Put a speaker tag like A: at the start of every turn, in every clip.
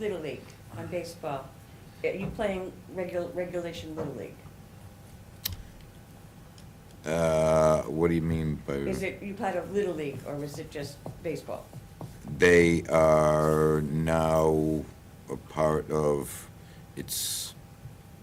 A: Little League, on baseball. Are you playing regu- regulation Little League?
B: Uh, what do you mean by?
A: Is it, you part of Little League, or is it just baseball?
B: They are now a part of, it's,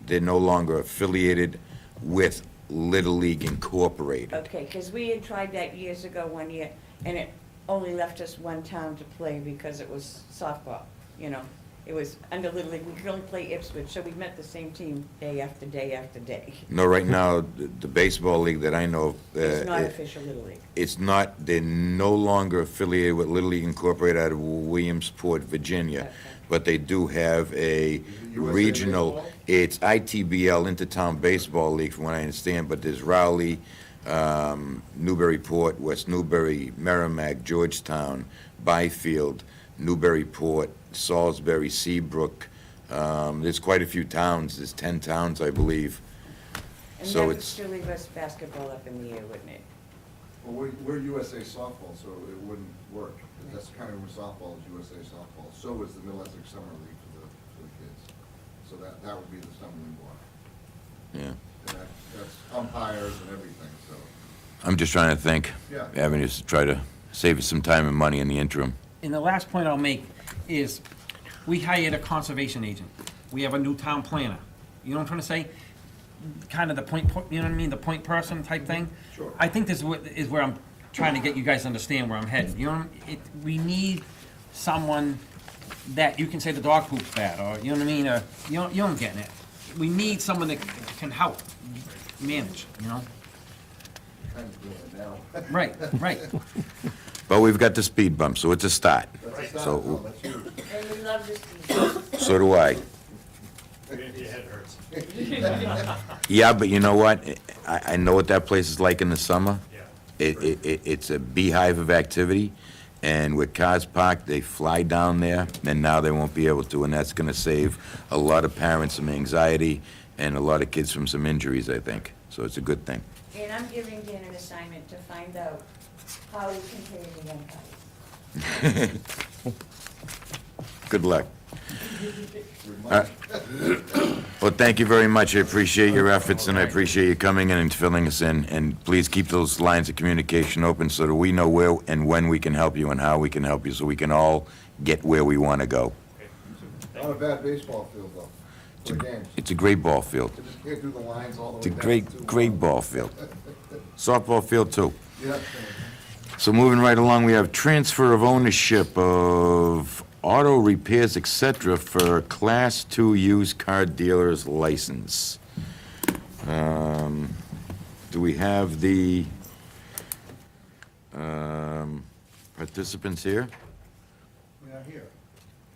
B: they're no longer affiliated with Little League Incorporated.
A: Okay, because we had tried that years ago, one year, and it only left us one town to play because it was softball, you know? It was under Little League, we could only play Ipswich, so we met the same team day after day after day.
B: No, right now, the the baseball league that I know of. uh,
A: It's not
B: it-
A: official Little League.
B: It's not, they're no longer affiliated with Little League Incorporated out of Williamsport, Virginia,
A: Okay.
B: but they do have a
C: USA
B: regional,
C: Baseball?
B: it's ITBL, Intertown Baseball League, from what I understand, but there's Rowley, um, Newburyport, West Newbury, Merrimack, Georgetown, Byfield, Newburyport, Salisbury, Seabrook. Um, There's quite a few towns, there's 10 towns, I believe.
A: And
B: So
A: that would
B: it's-
A: still leave us basketball up in the air, wouldn't it?
C: Well, we're, we're USA softball, so it wouldn't work. That's kind of where softball is USA softball. So is the Middle Essex Summer League for the, for the kids. So that, that would be the Summer League one.
B: Yeah.
C: And that, that's umpires and everything, so.
B: I'm just trying to think.
C: Yeah.
B: Avenues to try to save us some time and money in the interim.
D: And the last point I'll make is, we hired a conservation agent. We have a new town planner. You know what I'm trying to say? Kind of the point, po- you know what I mean, the point person type thing?
C: Sure.
D: I think this is where, is where I'm trying to get you guys to understand where I'm headed. You know, what I'm- it, we need someone that you can say the dog poops bad, or, you know what I mean, or, you don't, you don't get it. We need someone that can help manage, you know?
C: Kind of doing it now.
D: Right, right.
B: But we've got the speed bump, so it's a start.
C: That's not, no,
B: So,
C: that's huge.
A: And we love this
B: so do I.
E: Your head hurts.
B: Yeah, but you know what? I, I know what that place is like in the summer.
E: Yeah.
B: It, it- it, it's a beehive of activity, and with cars parked, they fly down there, and now they won't be able to, and that's gonna save a lot of parents some anxiety and a lot of kids from some injuries, I think. So it's a good thing.
A: And I'm giving Dan an assignment to find out how we can pay the umpires.
B: Good luck.
C: Good
B: Uh,
C: money.
B: Well, thank you very much. I appreciate your efforts, and I appreciate you coming in and filling us in. And please keep those lines of communication open so that we know where and when we can help you and how we can help you, so we can all get where we want to go.
C: Not a bad baseball field, though, for games.
B: It's a great ball field.
C: They just can't do the lines all the way uh,
B: It's a
C: down. It's too
B: great, great
C: long.
B: ball field. Softball field, too.
C: Yeah.
B: So moving right along, we have transfer of ownership of auto repairs, et cetera, for Class Two used car dealer's license. Um, Do we have the um, participants here?
F: We are here.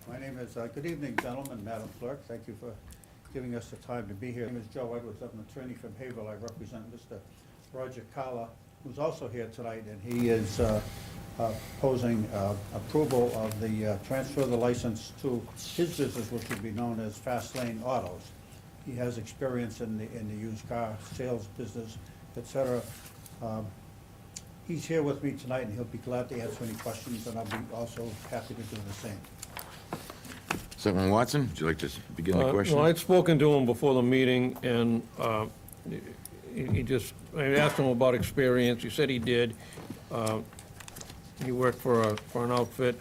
F: My name is, uh, good evening, gentlemen, Madam Clerk. Thank you for giving us the time to be here. My name is Joe Edwards. I'm an attorney from Haverhill. I represent Mr. Roger Calla, who's also here tonight, and he is uh, uh, posing uh, approval of the uh, transfer of the license to his business, which would be known as Fast Lane Autos. He has experience in the, in the used car sales business, et cetera. Um, He's here with me tonight, and he'll be glad to answer any questions, and I'll be also happy to do the same.
B: Selectman Watson, would you like to s- begin the
G: Uh,
B: question?
G: No, I'd spoken to him before the meeting, and uh, he he just, I asked him about experience, he said he did. Uh, He worked for a, for an outfit,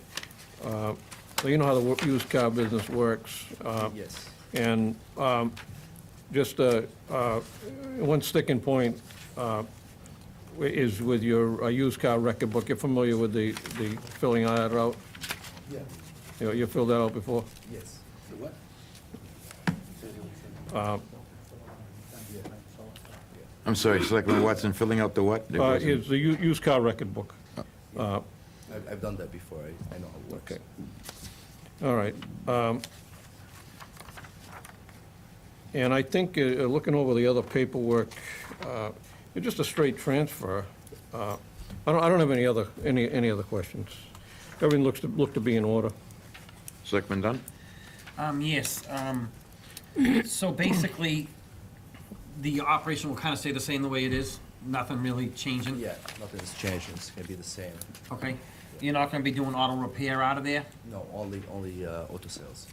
G: Uh, so you know how the wo- used car business works. Yes. And um, just, uh, uh, one sticking point uh, wi- is with your uh, used car record book, you're familiar with the, the filling that out?
F: Yeah.
G: You know, you filled that out before?
F: Yes. What?
B: I'm sorry, Selectman Watson, filling out the what? There
G: Uh,
B: wasn't-
G: It's the u- used car record book. Uh,
H: I've, I've done that before, I, I know how it works.
G: Okay. All right. um, And I think, uh, looking over the other paperwork, uh, it's just a straight transfer. Uh, I don't, I don't have any other, any, any other questions. Everything looks to, look to be in order.
B: Selectman Dunn?
D: Um, yes, um, so basically, the operation will kind of stay the same the way it is, nothing really changing?
H: Yeah, nothing's changed, it's gonna be the same.
D: Okay, You're not gonna be doing auto repair out of there?
F: No, only, only uh, auto sales.